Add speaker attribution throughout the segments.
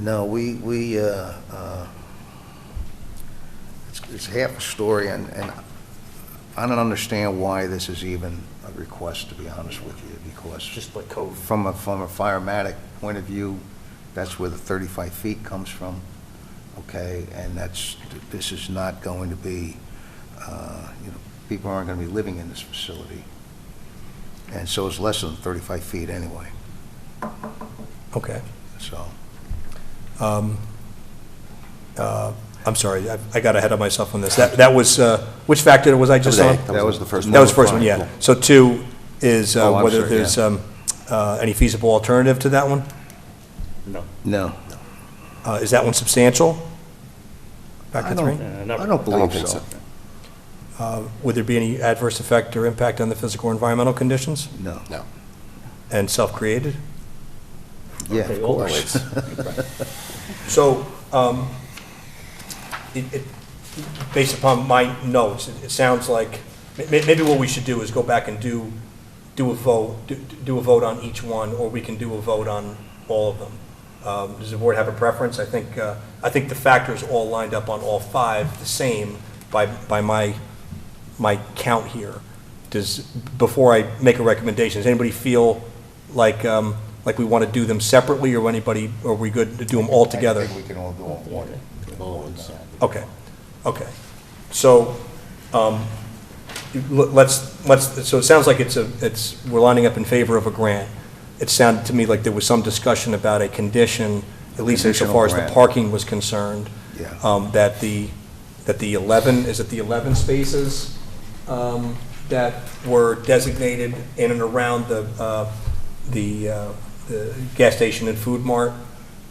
Speaker 1: No, we, we, uh, uh, it's, it's half a story, and, and I don't understand why this is even a request, to be honest with you, because
Speaker 2: just like code.
Speaker 1: from a, from a firematic point of view, that's where the 35 feet comes from, okay? And that's, this is not going to be, uh, you know, people aren't going to be living in this facility. And so it's less than 35 feet anyway,
Speaker 3: Okay.
Speaker 1: so.
Speaker 3: Um, uh, I'm sorry, I- I got ahead of myself on this. That that was, uh, which factor was I just
Speaker 1: That
Speaker 3: on?
Speaker 1: was- that was the first one.
Speaker 3: That was the first one, yeah. So two is uh,
Speaker 1: Oh, I'm
Speaker 3: whether
Speaker 1: sorry,
Speaker 3: there's
Speaker 1: yeah.
Speaker 3: um, uh, any feasible alternative to that one?
Speaker 1: No.
Speaker 3: Uh, Is that one substantial? Factor
Speaker 2: Uh,
Speaker 3: three?
Speaker 1: I
Speaker 2: not-
Speaker 1: don't
Speaker 4: I don't
Speaker 1: believe
Speaker 4: think so.
Speaker 1: so.
Speaker 3: Uh, Would there be any adverse effect or impact on the physical or environmental conditions
Speaker 1: No.
Speaker 4: No.
Speaker 3: and self-created?
Speaker 1: Yeah,
Speaker 2: Okay,
Speaker 1: of
Speaker 2: all the
Speaker 1: course.
Speaker 3: So, um, it, it, based upon my notes, it, it sounds like, may, may- maybe what we should do is go back and do, do a vote, do, do a vote on each one, or we can do a vote on all of them. Um, does the board have a preference? I think, uh, I think the factors all lined up on all five the same by, by my, my count here. Does, before I make a recommendation, does anybody feel like, um, like we want to do them separately, or anybody, or we good to do them all together?
Speaker 1: I think we can all do it in one.
Speaker 3: Okay, okay. So, um, you- l- let's, let's, so it sounds like it's a, it's, we're lining up in favor of a grant. It sounded to me like there was some discussion about a condition, at least insofar as the
Speaker 1: Conditional grant.
Speaker 3: parking was concerned.
Speaker 1: Yeah.
Speaker 3: Um, that the, that the 11, is it the 11 spaces, um, that were designated in and around the, uh, the, uh, the gas station and food mart?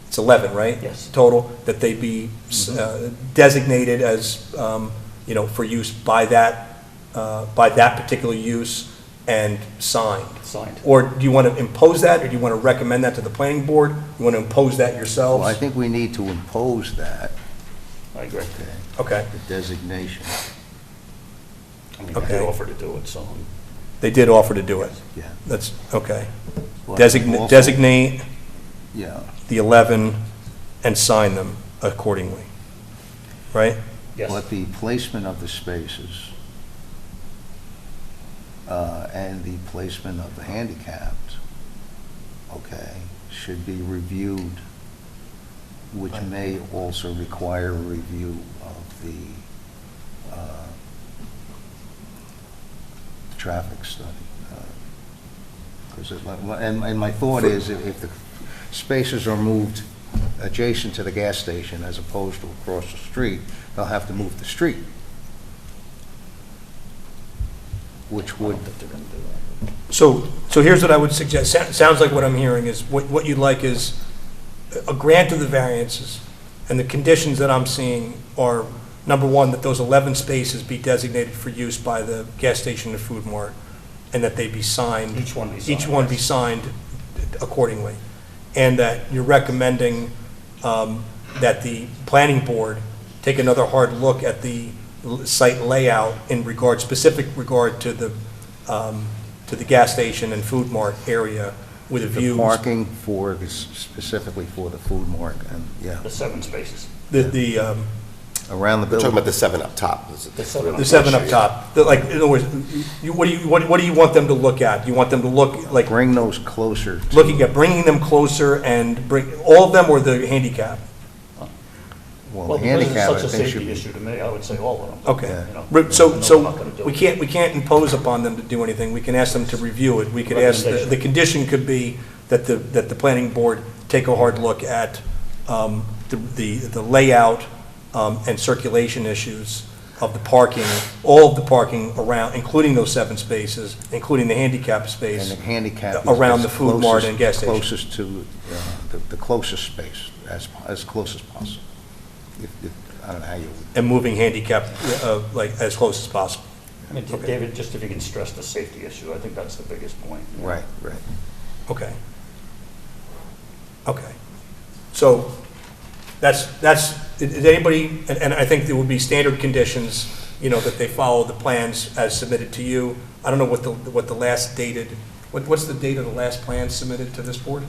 Speaker 3: It's 11, right?
Speaker 2: Yes.
Speaker 3: Total, that they be
Speaker 1: Mm-hmm.
Speaker 3: uh, designated as, um, you know, for use by that, uh, by that particular use and signed?
Speaker 2: Signed.
Speaker 3: Or do you want to impose that, or do you want to recommend that to the planning board? You want to impose that
Speaker 1: Well, I
Speaker 3: yourselves?
Speaker 1: think we need to impose that,
Speaker 2: I agree.
Speaker 1: okay,
Speaker 3: Okay,
Speaker 1: the designation.
Speaker 2: I mean,
Speaker 3: Okay.
Speaker 2: they offered to do it, so. um,
Speaker 3: they did offer to do it.
Speaker 1: Yeah.
Speaker 3: That's, okay.
Speaker 1: Well,
Speaker 3: Designate,
Speaker 1: lawful-
Speaker 3: designate
Speaker 1: Yeah,
Speaker 3: the 11 and sign them accordingly, right?
Speaker 2: Yes,
Speaker 1: but the placement of the spaces uh, and the placement of the handicapped, okay, should be reviewed, which may also require a review of the uh, traffic study. uh, Because, and, and my thought is, if if the spaces are moved adjacent to the gas station as opposed to across the street, they'll have to move the street. Which would,
Speaker 3: So, so here's what I would suggest, Sou- sounds like what I'm hearing is, what, what you'd like is a grant of the variances, and the conditions that I'm seeing are, number one, that those 11 spaces be designated for use by the gas station and food mart, and that they be signed.
Speaker 2: Each one be
Speaker 3: Each
Speaker 2: signed,
Speaker 3: one be
Speaker 2: yes.
Speaker 3: signed accordingly, and that you're recommending um, that the planning board take another hard look at the l- site layout in regard, specific regard to the, um, to the gas station and food mart area with a
Speaker 1: the
Speaker 3: view.
Speaker 1: parking for, this- specifically for the food mart, and, yeah,
Speaker 2: the seven spaces.
Speaker 3: The, the, um,
Speaker 1: around the
Speaker 4: We're talking
Speaker 1: building.
Speaker 4: about the seven up top. This is-
Speaker 2: The seven
Speaker 3: The seven up top, the- like, in other words, you, what do you, what, what do you want them to look at? You want them to look, like,
Speaker 1: Bring those closer. to-
Speaker 3: looking at bringing them closer and bring, all of them or the handicap?
Speaker 1: Well,
Speaker 2: Well,
Speaker 1: the
Speaker 2: because it's
Speaker 1: handicap,
Speaker 2: such
Speaker 1: I
Speaker 2: a
Speaker 1: think should
Speaker 2: safety
Speaker 1: be.
Speaker 2: issue to me, I would say all of them.
Speaker 3: Okay.
Speaker 2: You know?
Speaker 3: Re- So,
Speaker 2: No, we're not
Speaker 3: so
Speaker 2: gonna do
Speaker 3: we
Speaker 2: it.
Speaker 3: can't, we can't impose upon them to do anything. We can ask them to review it. We could ask, the, the
Speaker 2: Recommendation.
Speaker 3: condition could be that the, that the planning board take a hard look at, um, the, the the layout, um, and circulation issues of the parking, all of the parking around, including those seven spaces, including the handicap
Speaker 1: And
Speaker 3: space.
Speaker 1: the handicap. is
Speaker 3: Around the food mart and gas station.
Speaker 1: Closest to, uh, the- the closest space, as, as close as possible. If- if- I don't know how you would
Speaker 3: and moving handicap, uh, like, as close as possible.
Speaker 2: I mean, David, just if you can stress the safety issue, I think that's the biggest point.
Speaker 1: Right, right.
Speaker 3: Okay. Okay. So that's, that's, i- is anybody, and, and I think there would be standard conditions, you know, that they follow the plans as submitted to you. I don't know what the, what the last dated, what, what's the date of the last plan submitted to this board?